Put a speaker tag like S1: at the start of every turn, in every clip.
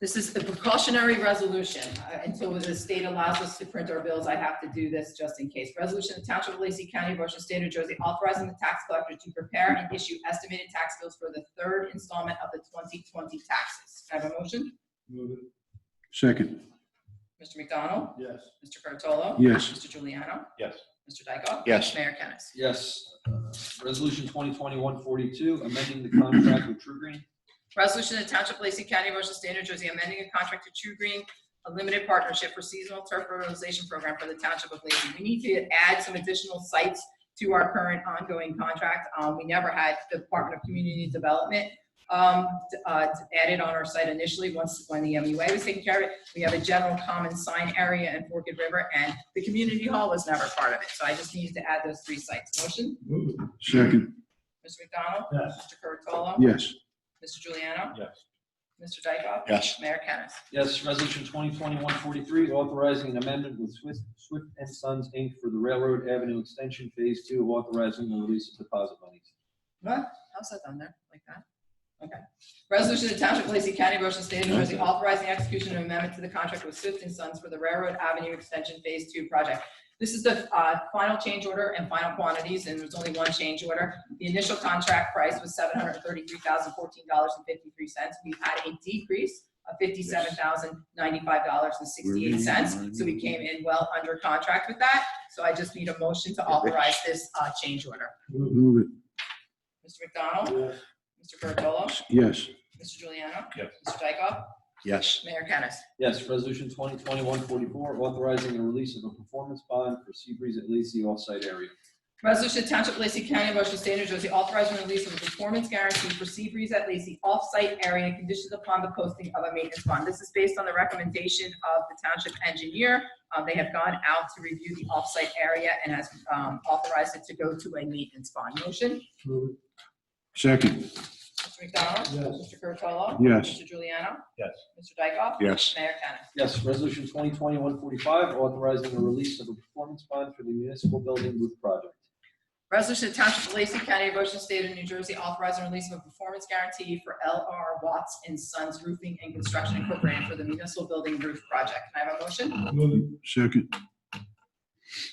S1: This is the precautionary resolution. Uh, Until the state allows us to print our bills, I have to do this just in case. Resolution of Township of Lacey County, Ocean State, New Jersey, authorizing the tax collector to prepare and issue estimated tax bills for the third installment of the 2020 taxes. Can I have a motion?
S2: Move it.
S3: Second,
S1: Mr. McDonald?
S2: Yes.
S1: Mr. Curatolo?
S3: Yes.
S1: Mr. Juliano?
S2: Yes.
S1: Mr. Dykoff?
S3: Yes.
S1: Mayor Kennas?
S4: Yes. Uh, Resolution 2021-42, amending the contract with True Green.
S1: Resolution of Township of Lacey County, Ocean State, New Jersey, amending a contract to True Green, a limited partnership for seasonal turf fertilization program for the Township of Lacey. We need to add some additional sites to our current ongoing contract. Um, we never had the Department of Community Development, um, t- uh, t- added on our site initially, once, when the MUA was taken care of it. We have a general common sign area in Forked River, and the community hall was never part of it. So I just needed to add those three sites. Motion,
S2: Move it.
S3: second,
S1: Mr. McDonald?
S2: Yes.
S1: Mr. Curatolo?
S3: yes.
S1: Mr. Juliano?
S2: Yes.
S1: Mr. Dykoff?
S3: Yes.
S1: Mayor Kennas?
S4: Yes. Resolution 2021-43, authorizing an amendment with Swift Swift and Sons, Inc. for the Railroad Avenue Extension Phase 2, authorizing the release of deposit monies.
S1: What? How's that done there, like that? Okay. Resolution to Township of Lacey County, Ocean State, New Jersey, authorizing the execution of an amendment to the contract with Swift and Sons for the Railroad Avenue Extension Phase Two project. This is the uh, final change order and final quantities, and there's only one change order. The initial contract price was seven hundred thirty-three thousand fourteen dollars and fifty-three cents. We've had a decrease of fifty-seven thousand ninety-five dollars and sixty-eight cents, so we came in well under contract with that. So I just need a motion to authorize this uh, change order.
S3: Move
S1: Mr. McDonald?
S2: Yes.
S1: Mr. Curatolo?
S3: it, yes.
S1: Mr. Juliano?
S2: Yes.
S1: Mr. Dykoff?
S3: Yes.
S1: Mayor Kennas?
S4: Yes. Resolution 2021-44, authorizing the release of a performance bond for Seabreeze at Lacey off-site area.
S1: Resolution to Township of Lacey County, Ocean State, New Jersey, authorizing the release of a performance guarantee for Seabreeze at Lacey off-site area conditions upon the posting of a maintenance bond. This is based on the recommendation of the township engineer. Uh, They have gone out to review the off-site area and has um, authorized it to go to a maintenance bond. Motion?
S2: Move it.
S3: Second,
S1: Mr. McDonald?
S2: Yes.
S1: Mr. Curatolo?
S3: Yes.
S1: Mr. Juliano?
S2: Yes.
S1: Mr. Dykoff?
S3: yes.
S1: Mayor Kennas?
S4: Yes. Resolution 2021-45, authorizing the release of a performance bond for the municipal building roof project.
S1: Resolution to Township of Lacey County, Ocean State of New Jersey, authorizing release of a performance guarantee for L.R. Watts and Sons Roofing and Construction Incorporated for the municipal building roof project. Can I have a motion?
S2: Move it.
S3: Second,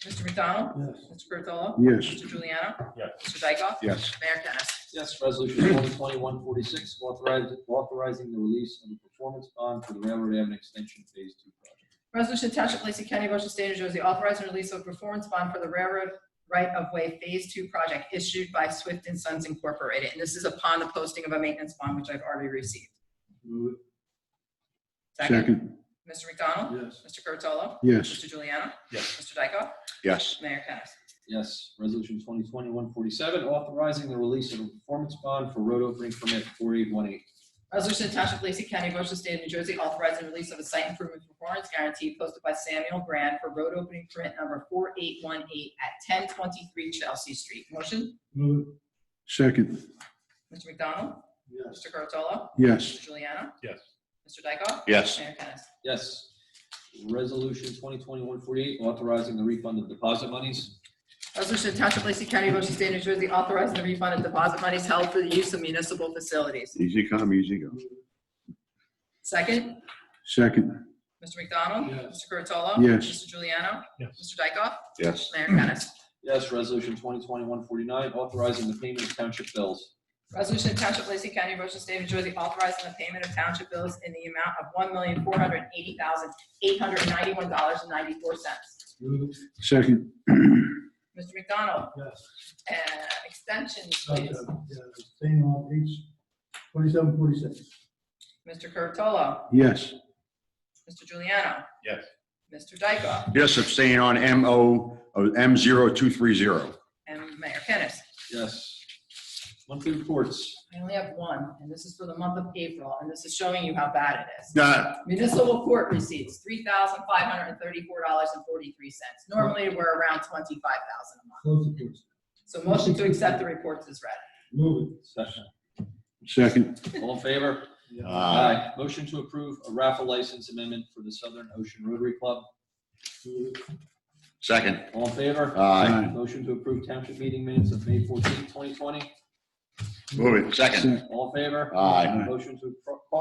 S1: Mr. McDonald?
S2: Yes.
S1: Mr. Curatolo?
S3: yes.
S1: Mr. Juliano?
S2: Yes.
S1: Mr. Dykoff?
S3: Yes.
S1: Mayor Kennas?
S4: Yes, resolution 2021-46, authorize- authorizing the release of a performance bond for the Railroad Avenue Extension Phase 2 project.
S1: Resolution to Township of Lacey County, Ocean State of New Jersey, authorizing release of a performance bond for the railroad right-of-way Phase Two project issued by Swift and Sons Incorporated. And this is upon the posting of a maintenance bond, which I've already received.
S2: Move
S3: Second,
S1: Mr. McDonald?
S2: it. Yes.
S1: Mr. Curatolo?
S3: yes.
S1: Mr. Juliano?
S2: Yes.
S1: Mr. Dykoff?
S3: Yes.
S1: Mayor Kennas?
S4: Yes, resolution 2021-47, authorizing the release of a performance bond for road opening permit 4818.
S1: Resolution to Township of Lacey County, Ocean State of New Jersey, authorizing release of a site improvement performance guarantee posted by Samuel Brand for road opening permit number 4818 at 1023 Chelsea Street. Motion,
S2: Move it.
S3: Second,
S1: Mr. McDonald?
S2: Yes.
S1: Mr. Curatolo?
S3: yes.
S1: Mr. Juliano?
S2: Yes.
S1: Mr. Dykoff?
S3: Yes.
S1: Mayor Kennas?
S4: Yes, resolution 2021-48, authorizing the refund of deposit monies.
S1: Resolution to Township of Lacey County, Ocean State of New Jersey, authorizing the refund of deposit monies held for the use of municipal facilities.
S3: Easy come, easy go.
S1: Second,
S3: Second,
S1: Mr. McDonald?
S2: Yes.
S1: Mr. Curatolo?
S3: Yes.
S1: Mr. Juliano?
S2: Yes.
S1: Mr. Dykoff?
S3: yes.
S1: Mayor Kennas?
S4: Yes, resolution 2021-49, authorizing the payment of township bills.
S1: Resolution to Township of Lacey County, Ocean State, New Jersey, authorizing the payment of township bills in the amount of one million, four hundred and eighty thousand, eight hundred and ninety-one dollars and ninety-four cents.
S2: Move it.
S3: Second,
S1: Mr. McDonald,
S2: Yes.
S1: uh, extensions,
S2: Okay.
S1: please.
S2: Yeah, Same on page twenty-seven, forty-six.
S1: Mr. Curatolo,
S3: yes.
S1: Mr. Juliano,
S2: Yes.
S1: Mr. Dykoff,
S5: Yes, abstain on uh, MO, M0230.
S1: and Mayor Kennis.
S4: Yes. Monthly reports.
S1: I only have one, and this is for the month of April, and this is showing you how bad it is.
S5: Uh,
S1: Municipal court receipts, three thousand, five hundred and thirty-four dollars and forty-three cents. Normally, we're around twenty-five thousand a month.
S2: Close the doors.
S1: So motion to accept the reports is read.
S2: Move
S4: Session.
S3: Second,
S4: All in favor?
S2: it.
S5: Uh,
S3: Ah.
S4: Aye. Motion to approve a raffle license amendment for the Southern Ocean Rotary Club.
S2: Move it.
S5: Second.
S4: All in favor?
S5: Aye.
S3: Aye.
S4: Motion to approve township meeting minutes of May 14, 2020.
S5: Move it. Second.
S3: second.
S4: All in favor?
S5: Aye.
S4: Motion to appro-